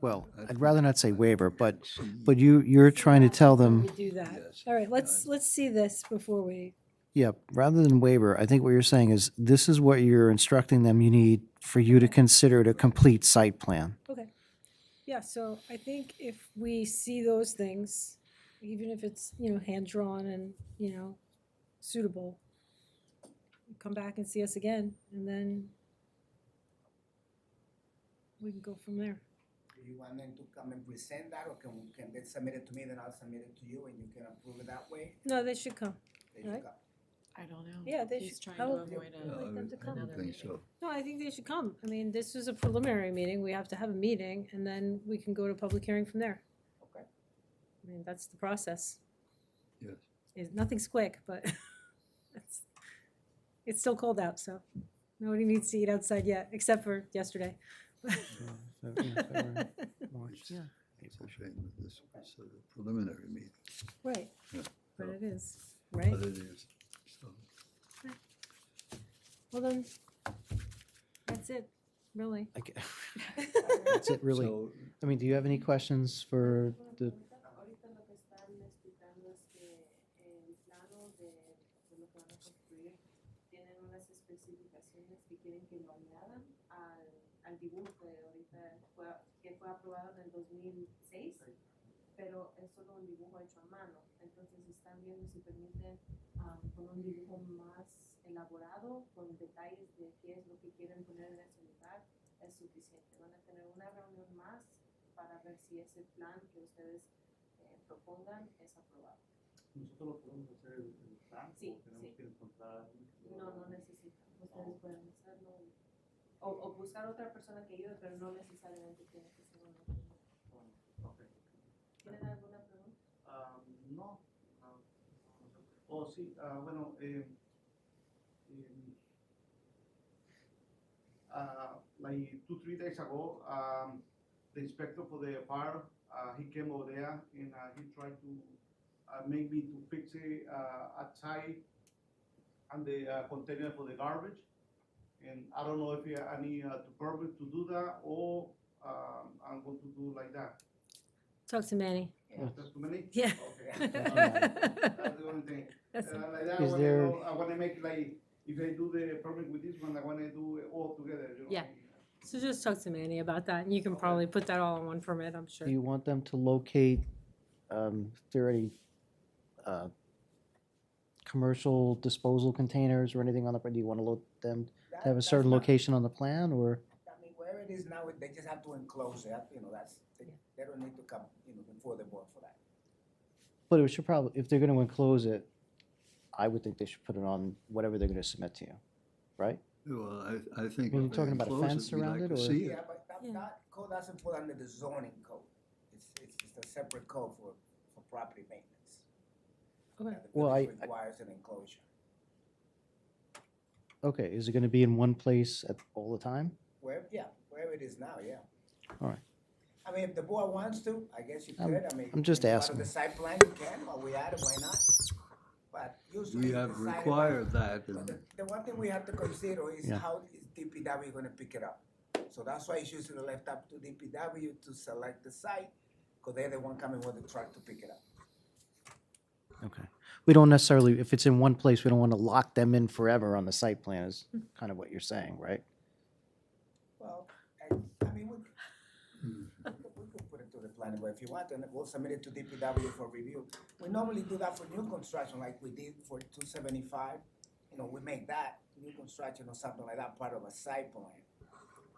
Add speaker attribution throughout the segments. Speaker 1: well, I'd rather not say waiver, but, but you, you're trying to tell them,
Speaker 2: do that. All right, let's, let's see this before we,
Speaker 1: yeah, rather than waiver, I think what you're saying is, this is what you're instructing them you need for you to consider it a complete site plan.
Speaker 2: okay. Yeah, so I think if we see those things, even if it's, you know, hand-drawn and, you know, suitable, come back and see us again, and then we can go from there.
Speaker 3: Do you want them to come and present that, or can, can they submit it to me, then I'll submit it to you, and you can approve it that way?
Speaker 2: No, they should come.
Speaker 3: They should
Speaker 2: Right.
Speaker 3: come.
Speaker 4: I don't know.
Speaker 2: Yeah, they
Speaker 4: He's
Speaker 2: should-
Speaker 4: trying
Speaker 2: I
Speaker 4: to
Speaker 2: would-
Speaker 4: avoid
Speaker 2: I
Speaker 5: Oh,
Speaker 2: would
Speaker 4: a.
Speaker 2: like them to
Speaker 4: I
Speaker 2: come.
Speaker 4: don't think so.
Speaker 2: No, I think they should come. I mean, this is a preliminary meeting. We have to have a meeting, and then we can go to public hearing from there.
Speaker 3: Okay.
Speaker 2: I mean, that's the process.
Speaker 5: Yes.
Speaker 2: Is, nothing's quick, but it's, it's still cold out, so nobody needs to eat outside yet, except for yesterday.
Speaker 1: Yeah.
Speaker 5: It's a shame that this was a preliminary meeting,
Speaker 2: Right,
Speaker 5: Yeah.
Speaker 2: but it is, right?
Speaker 5: but it is. So,
Speaker 2: Well, then, that's it, really.
Speaker 1: I ca- That's it, really.
Speaker 5: so
Speaker 1: I mean, do you have any questions for the,
Speaker 6: Ahorita lo que están explicando es que eh, el plano de, de lo que van a construir tienen unas especificaciones que quieren que lo añadan al, al dibujo que ahorita fue, que fue aprobado en el 2006, pero es solo un dibujo hecho a mano. Entonces están viendo si permiten ah, con un dibujo más elaborado, con detalles de qué es lo que quieren poner en ese lugar, es suficiente. Van a tener una reunión más para ver si ese plan que ustedes eh, propongan es aprobado.
Speaker 7: Nosotros lo podemos hacer en en plan,
Speaker 6: Sí,
Speaker 7: o tenemos
Speaker 6: sí.
Speaker 7: que encontrar.
Speaker 6: No, no necesitan, ustedes pueden hacerlo. O, o buscar otra persona que ayude, pero no necesariamente tiene que ser una persona.
Speaker 7: Oh, ok.
Speaker 6: ¿Tienen alguna pregunta?
Speaker 7: Ah, no. ah, oh, sí, ah, bueno, eh, em, ah, like two, three days ago, um, the inspector for the fire, uh, he came over there and uh, he tried to uh, make me to fix it uh, outside and the uh, container for the garbage. And I don't know if you- I need uh, to permit to do that or um, I'm going to do like that.
Speaker 2: Talk to Manny.
Speaker 7: That's too many?
Speaker 2: Yeah.
Speaker 7: Okay.
Speaker 5: Oh,
Speaker 7: That's the only thing.
Speaker 2: That's-
Speaker 7: Uh, like that,
Speaker 1: Is
Speaker 7: when I
Speaker 1: there-
Speaker 7: go- I wanna make like, if I do the permit with this one, I wanna do it all together, you know?
Speaker 2: Yeah. So just talk to Manny about that, and you can probably put that all in one permit, I'm sure.
Speaker 1: do you want them to locate, um, if there are any, uh, commercial disposal containers or anything on the, do you want to load them
Speaker 3: That-
Speaker 1: to have a
Speaker 3: that's
Speaker 1: certain
Speaker 3: not-
Speaker 1: location on the plan, or?
Speaker 3: I mean, wherever it is now, they just have to enclose it, you know, that's, they, they don't need to come, you know, before the board for that.
Speaker 1: But it should probably, if they're going to enclose it, I would think they should put it on whatever they're going to submit to you, right?
Speaker 5: Well, I, I think.
Speaker 1: Well, you're
Speaker 5: if they
Speaker 1: talking about a
Speaker 5: enclose it,
Speaker 1: fence
Speaker 5: we'd
Speaker 1: around
Speaker 5: like
Speaker 1: it,
Speaker 5: to
Speaker 1: or-
Speaker 5: see
Speaker 3: Yeah, but that,
Speaker 2: Yeah.
Speaker 3: that code doesn't fall under the zoning code, it's, it's, it's a separate code for, for property maintenance.
Speaker 2: Okay.
Speaker 3: Now, the
Speaker 1: Well,
Speaker 3: village
Speaker 1: I- I-
Speaker 3: Requires an enclosure.
Speaker 1: Okay, is it going to be in one place at, all the time?
Speaker 3: Where, yeah, wherever it is now, yeah.
Speaker 1: All right.
Speaker 3: I mean, if the board wants to, I guess you
Speaker 1: I'm-
Speaker 3: could, I mean.
Speaker 1: I'm just
Speaker 3: if you wanna
Speaker 1: asking.
Speaker 3: decide plan, you can, or we add it, why not? But usually.
Speaker 5: We
Speaker 3: it's
Speaker 5: have
Speaker 3: decided by-
Speaker 5: required that
Speaker 3: But
Speaker 5: and
Speaker 3: The the one thing we have to consider is
Speaker 1: Yeah.
Speaker 3: how is DPW gonna pick it up? So that's why it's usually left up to DPW to select the site, cause they're the one coming with the truck to pick it up.
Speaker 1: Okay. We don't necessarily, if it's in one place, we don't want to lock them in forever on the site plan is kind of what you're saying, right?
Speaker 3: Well, I, I mean, we, we could, we could put it to the planning board if you want, and we'll submit it to DPW for review. We normally do that for new construction, like we did for two seventy-five, you know, we make that, new construction or something like that, part of a site plan.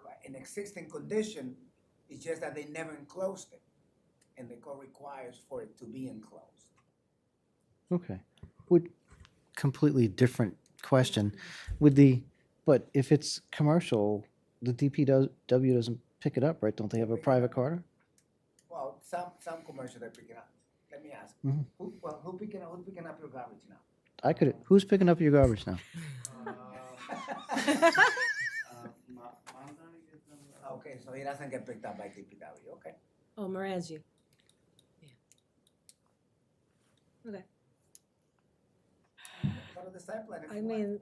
Speaker 3: But in existing condition, it's just that they never enclosed it, and the code requires for it to be enclosed.
Speaker 1: Okay. Would, completely different question. Would the, but if it's commercial, the DPW doesn't pick it up, right? Don't they have a private carter?
Speaker 3: Well, some, some commercial they're picking up, let me ask,
Speaker 1: Mhm.
Speaker 3: who, well, who picking up, who's picking up your garbage now?
Speaker 1: I could, who's picking up your garbage now?
Speaker 7: Uh,
Speaker 3: Okay, Ah, so he doesn't get picked up by DPW, okay.
Speaker 2: Oh, Morangi. Okay,
Speaker 3: Go to the site plan if
Speaker 2: I
Speaker 3: you want.
Speaker 2: mean,